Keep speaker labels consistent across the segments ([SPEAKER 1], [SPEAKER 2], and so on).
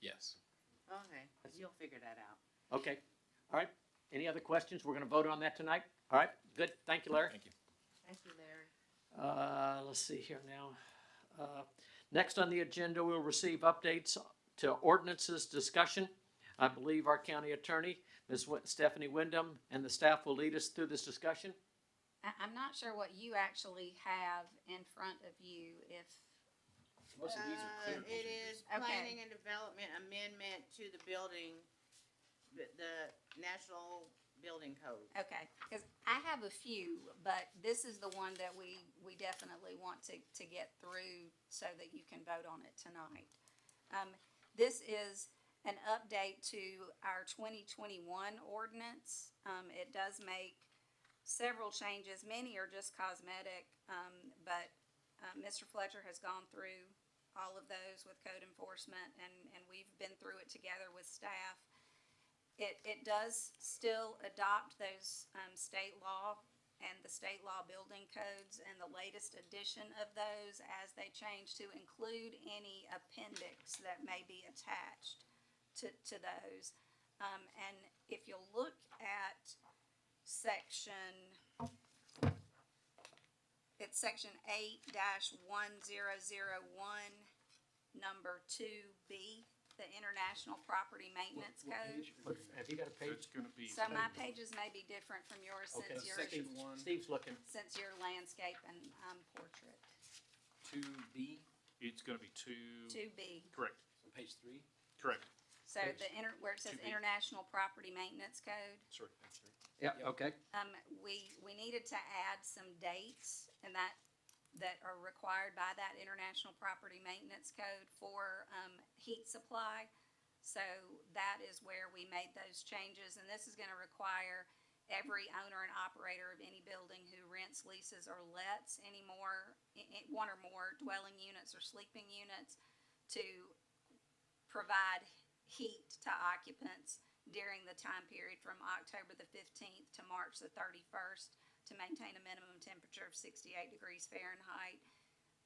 [SPEAKER 1] Yes.
[SPEAKER 2] Okay, you'll figure that out.
[SPEAKER 3] Okay, all right. Any other questions? We're gonna vote on that tonight? All right, good. Thank you, Larry.
[SPEAKER 1] Thank you.
[SPEAKER 2] Thank you, Larry.
[SPEAKER 3] Uh, let's see here now. Uh, Next on the agenda, we'll receive updates to ordinances discussion. I believe our county attorney, Ms. Wi- Stephanie Wyndham, and the staff will lead us through this discussion.
[SPEAKER 4] I, I'm not sure what you actually have in front of you, if,
[SPEAKER 1] Most of these are clear.
[SPEAKER 2] Uh, It is
[SPEAKER 4] Okay.
[SPEAKER 2] planning and development amendment to the building, the, the National Building Code.
[SPEAKER 4] okay, cause I have a few, but this is the one that we, we definitely want to, to get through so that you can vote on it tonight. Um, this is an update to our twenty twenty-one ordinance. Um, it does make several changes, many are just cosmetic, um, but, uh, Mr. Fletcher has gone through all of those with code enforcement and, and we've been through it together with staff. It, it does still adopt those, um, state law and the state law building codes and the latest edition of those as they change to include any appendix that may be attached to, to those. Um, and if you'll look at section, it's section eight dash one zero zero one, number two B, the International Property Maintenance Code.
[SPEAKER 3] Have you got a page?
[SPEAKER 1] gonna be.
[SPEAKER 4] So my pages may be different from yours
[SPEAKER 3] Okay,
[SPEAKER 4] since you're,
[SPEAKER 1] Section one,
[SPEAKER 3] Steve's looking.
[SPEAKER 4] since you're landscape and, um, portrait,
[SPEAKER 1] two B,
[SPEAKER 5] It's gonna be two,
[SPEAKER 4] two B.
[SPEAKER 5] correct,
[SPEAKER 1] on page three?
[SPEAKER 5] correct,
[SPEAKER 4] So
[SPEAKER 3] Page-
[SPEAKER 4] the inter, where it says
[SPEAKER 5] 2B.
[SPEAKER 4] International Property Maintenance Code,
[SPEAKER 5] sorry.
[SPEAKER 3] Yeah,
[SPEAKER 1] Yep.
[SPEAKER 3] okay.
[SPEAKER 4] um, we, we needed to add some dates and that, that are required by that International Property Maintenance Code for, um, heat supply. So that is where we made those changes, and this is gonna require every owner and operator of any building who rents, leases, or lets any more, i- i- one or more dwelling units or sleeping units to provide heat to occupants during the time period from October the fifteenth to March the thirty-first to maintain a minimum temperature of sixty-eight degrees Fahrenheit.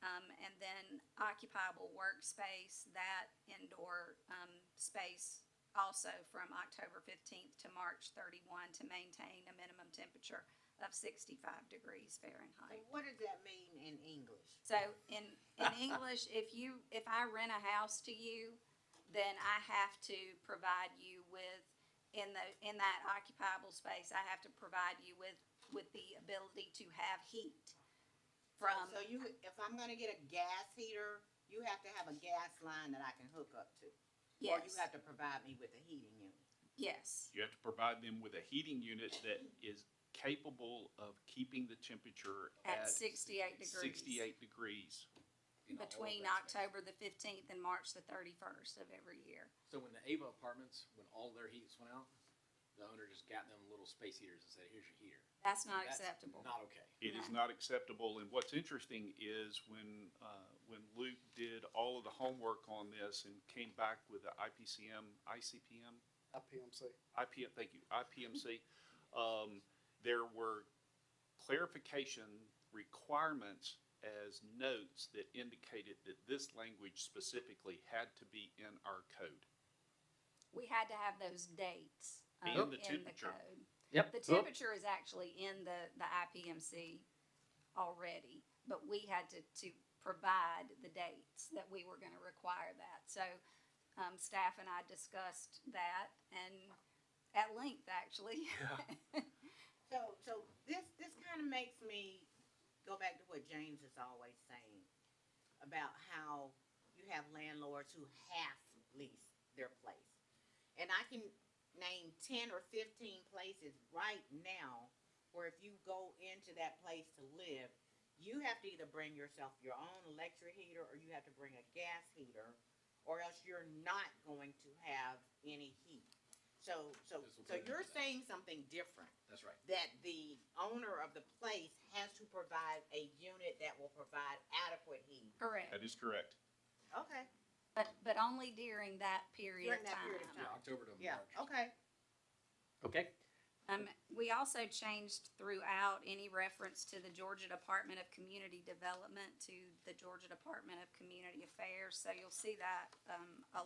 [SPEAKER 4] Um, and then occupiable workspace, that indoor, um, space also from October fifteenth to March thirty-one to maintain a minimum temperature of sixty-five degrees Fahrenheit.
[SPEAKER 2] What does that mean in English?
[SPEAKER 4] So in, in English, if you, if I rent a house to you, then I have to provide you with, in the, in that occupiable space, I have to provide you with, with the ability to have heat from,
[SPEAKER 2] So you, if I'm gonna get a gas heater, you have to have a gas line that I can hook up to. Or you
[SPEAKER 4] yes,
[SPEAKER 2] have to provide me with a heating unit.
[SPEAKER 4] yes,
[SPEAKER 5] You have to provide them with a heating unit that is capable of keeping the temperature
[SPEAKER 4] at
[SPEAKER 5] at
[SPEAKER 4] sixty-eight degrees.
[SPEAKER 5] sixty-eight degrees.
[SPEAKER 1] You know, all of
[SPEAKER 4] Between
[SPEAKER 1] that's-
[SPEAKER 4] October the fifteenth and March the thirty-first of every year.
[SPEAKER 1] So when the Ava apartments, when all their heats went out, the owner just got them little space heaters and said, here's your heater.
[SPEAKER 4] That's not
[SPEAKER 1] That's
[SPEAKER 4] acceptable.
[SPEAKER 1] Not okay.
[SPEAKER 5] It is not acceptable, and what's interesting is when, uh, when Luke did all of the homework on this and came back with the IPCM, ICPM,
[SPEAKER 6] IPMC.
[SPEAKER 5] IPM, thank you, IPMC, um, there were clarification requirements as notes that indicated that this language specifically had to be in our code.
[SPEAKER 4] We had to have those dates,
[SPEAKER 5] And
[SPEAKER 4] um,
[SPEAKER 5] the
[SPEAKER 4] in the
[SPEAKER 5] temperature.
[SPEAKER 4] code.
[SPEAKER 3] Yep.
[SPEAKER 4] The temperature is actually in the, the IPMC already, but we had to, to provide the dates that we were gonna require that. So, um, staff and I discussed that and at length, actually.
[SPEAKER 2] So, so this, this kind of makes me go back to what James is always saying about how you have landlords who half lease their place. And I can name ten or fifteen places right now where if you go into that place to live, you have to either bring yourself your own electric heater or you have to bring a gas heater or else you're not going to have any heat. So, so,
[SPEAKER 1] This will
[SPEAKER 2] so
[SPEAKER 1] bring me
[SPEAKER 2] you're
[SPEAKER 1] to that.
[SPEAKER 2] saying something different
[SPEAKER 1] That's right.
[SPEAKER 2] that the owner of the place has to provide a unit that will provide adequate heat.
[SPEAKER 4] Correct,
[SPEAKER 5] That is correct.
[SPEAKER 2] Okay.
[SPEAKER 4] but, but only during that period
[SPEAKER 2] During
[SPEAKER 4] of
[SPEAKER 2] that period of
[SPEAKER 4] time.
[SPEAKER 1] Yeah, October to March.
[SPEAKER 2] Yeah, okay.
[SPEAKER 3] Okay,
[SPEAKER 4] Um, we also changed throughout any reference to the Georgia Department of Community Development to the Georgia Department of Community Affairs, so you'll see that, um, a